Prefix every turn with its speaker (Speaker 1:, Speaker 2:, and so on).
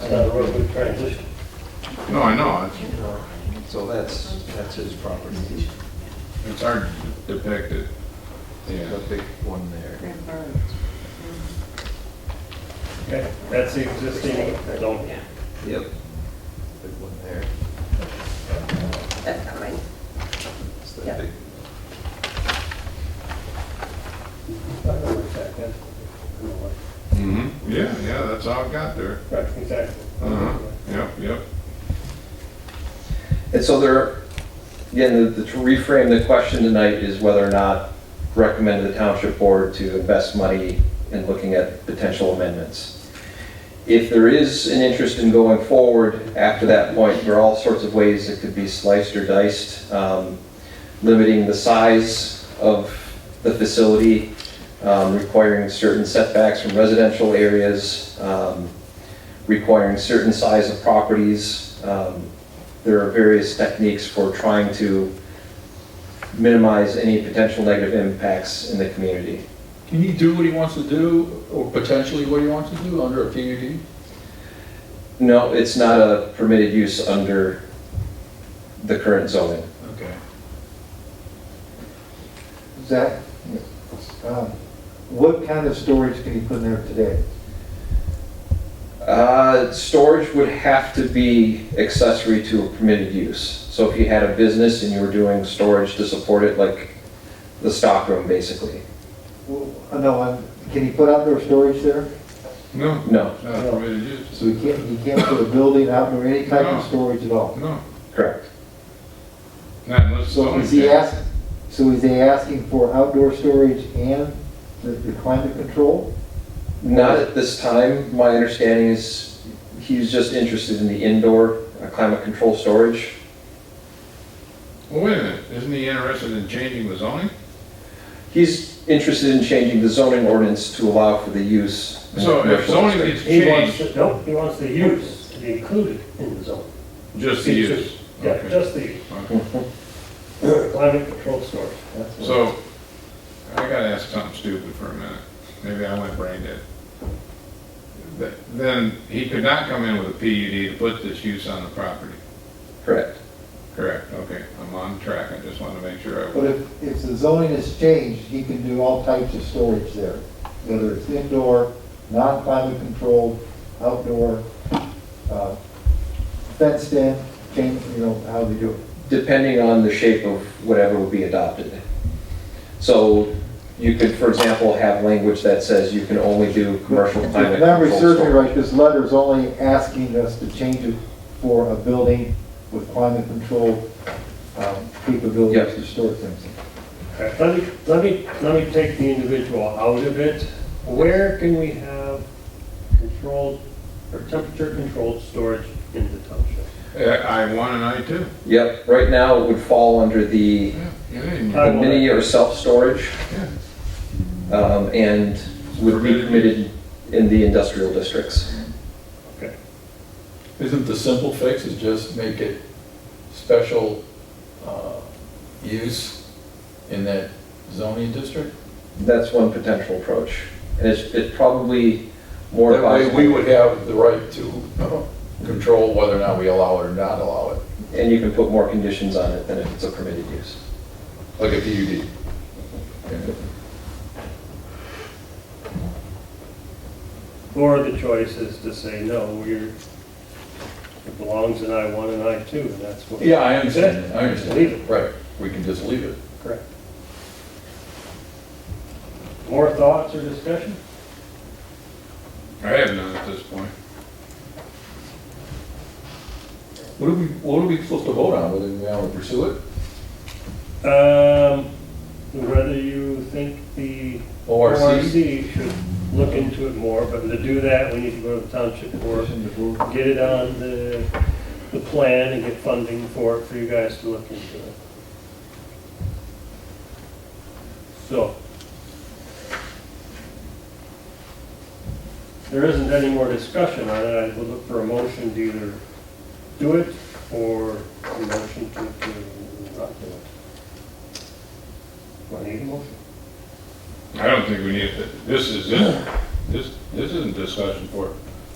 Speaker 1: side of the road, we transition.
Speaker 2: No, I know, it's,
Speaker 3: So that's, that's his property,
Speaker 2: it's hard to depict it. Yeah,
Speaker 3: the big one there.
Speaker 1: Okay, that's the existing zone.
Speaker 3: Yep. Big one there.
Speaker 4: That's not mine.
Speaker 3: It's that
Speaker 4: Yep.
Speaker 3: big,
Speaker 1: I know exactly. I know what-
Speaker 2: hmm yeah, yeah, that's how it got there.
Speaker 1: Right, exactly.
Speaker 2: Uh-huh, yep, yep.
Speaker 5: And so there, again, the- the- to reframe the question tonight is whether or not recommend the township board to invest money in looking at potential amendments. If there is an interest in going forward after that point, there are all sorts of ways it could be sliced or diced. Um, Limiting the size of the facility, um, requiring certain setbacks from residential areas, um, requiring certain size of properties, um, there are various techniques for trying to minimize any potential negative impacts in the community.
Speaker 6: Can he do what he wants to do, or potentially what he wants to do under a PUD?
Speaker 5: No, it's not a permitted use under the current zoning.
Speaker 6: Okay.
Speaker 7: Zach, um, what kind of storage can you put in there today?
Speaker 5: Uh, Storage would have to be accessory to a permitted use. So if you had a business and you were doing storage to support it, like the stockroom, basically,
Speaker 7: Well, No, I'm- can you put outdoor storage there?
Speaker 2: No,
Speaker 5: no,
Speaker 2: it's not permitted use.
Speaker 7: So you can't, you can't put a building outdoor, any type of storage at all?
Speaker 2: No,
Speaker 5: correct.
Speaker 2: not unless
Speaker 7: So
Speaker 2: someone
Speaker 7: is he
Speaker 2: can.
Speaker 7: ask, so is he asking for outdoor storage and the- the climate control?
Speaker 5: Not at this time. My understanding is he's just interested in the indoor uh, climate control storage.
Speaker 2: Well, wait a minute, isn't he interested in changing the zoning?
Speaker 5: He's interested in changing the zoning ordinance to allow for the use. in
Speaker 2: So if
Speaker 5: commercial
Speaker 2: zoning
Speaker 5: district.
Speaker 2: gets
Speaker 1: He wants,
Speaker 2: changed,
Speaker 1: to- no, he wants the use to be included in the zone.
Speaker 2: just the use.
Speaker 1: Yeah,
Speaker 2: Okay.
Speaker 1: just the
Speaker 2: Okay.
Speaker 1: climate control storage.
Speaker 7: That's what-
Speaker 2: So, I gotta ask something stupid for a minute. Maybe I went brain dead. Th- Then he could not come in with a PUD to put this use on the property.
Speaker 5: Correct.
Speaker 2: Correct, okay, I'm on track, I just wanted to make sure I was.
Speaker 7: But if, if the zoning is changed, he can do all types of storage there, whether it's indoor, non-climate controlled, outdoor, uh, fenced in, change, you know, how they do it.
Speaker 5: Depending on the shape of whatever will be adopted. So you could, for example, have language that says you can only do commercial
Speaker 7: If
Speaker 5: climate
Speaker 7: memory
Speaker 5: control
Speaker 7: serves me
Speaker 5: storage.
Speaker 7: right, this letter is only asking us to change it for a building with climate control um, capabilities
Speaker 5: Yes.
Speaker 7: to store things.
Speaker 1: Okay, Let me, let me, let me take the individual out of it. Where can we have controlled or temperature controlled storage in the township?
Speaker 2: eh, I I one and I two.
Speaker 5: Yep, right now it would fall under the
Speaker 2: Yeah, you didn't-
Speaker 1: Uh,
Speaker 5: the mini or self-storage. um, And would be
Speaker 2: Permitted.
Speaker 5: permitted in the industrial districts.
Speaker 6: Isn't the simple fix is just make it special uh, use in that zoning district?
Speaker 5: That's one potential approach. And it's, it's probably more.
Speaker 6: That way,
Speaker 5: possible.
Speaker 6: we would have the right to uh, control whether or not we allow it or not allow it,
Speaker 5: And you can put more conditions on it than if it's a permitted use.
Speaker 6: like a PUD.
Speaker 1: Or the choice is to say, no, we're, it belongs in I one and I two, and that's what.
Speaker 6: Yeah, I understand, that, I understand.
Speaker 1: Leave it.
Speaker 6: Right, we can just leave it.
Speaker 1: Correct. More thoughts or discussion?
Speaker 2: I have none at this point.
Speaker 6: What are we, what are we supposed to vote on, whether we want to pursue it?
Speaker 1: Um, whether you think the
Speaker 6: ORC?
Speaker 1: ORC should look into it more, but to do that, we need to go to the township board, get it on the, the plan and get funding for it, for you guys to look into it. So. There isn't any more discussion on it, I would look for a motion to either do it or a motion to, to not do it. Do I need a motion?
Speaker 2: I don't think we need, to- this is, this, this, this isn't discussion for, it.